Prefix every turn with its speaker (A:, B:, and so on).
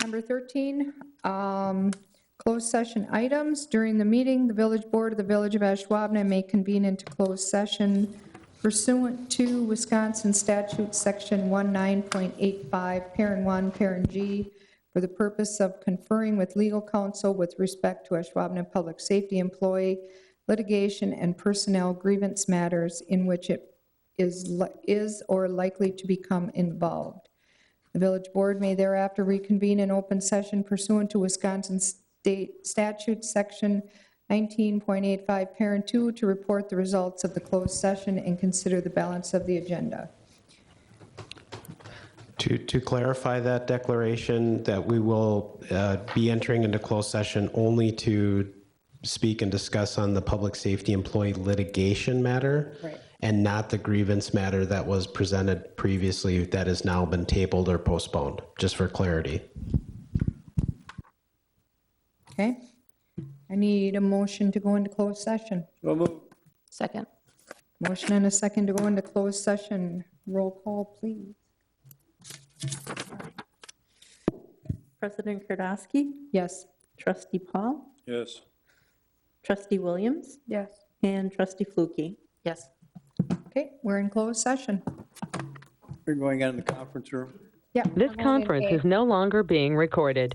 A: Number 13, um, closed session items. During the meeting, the village board of the Village of Ashwabhanet may convene into closed session pursuant to Wisconsin statute, section 19.85, parent 1, parent G, for the purpose of conferring with legal counsel with respect to Ashwabhanet Public Safety employee litigation and personnel grievance matters in which it is li- is or likely to become involved. The village board may thereafter reconvene in open session pursuant to Wisconsin State Statute, Section 19.85, Parent 2, to report the results of the closed session and consider the balance of the agenda.
B: To, to clarify that declaration, that we will uh, be entering into closed session only to speak and discuss on the public safety employee litigation matter
A: Right.
B: and not the grievance matter that was presented previously that has now been tabled or postponed, just for clarity.
A: Okay? I need a motion to go into closed session.
C: So moved.
D: Second.
A: Motion and a second to go into closed session. Roll call, please.
D: President Kardasky,
A: Yes.
D: trustee Paul,
C: Yes.
D: trustee Williams,
A: Yes.
D: and trustee Flukie. Yes.
A: Okay, we're in closed session.
C: We're going out in the conference room.
A: Yeah.
E: This
A: we're going
E: conference
A: in
E: is no longer being recorded.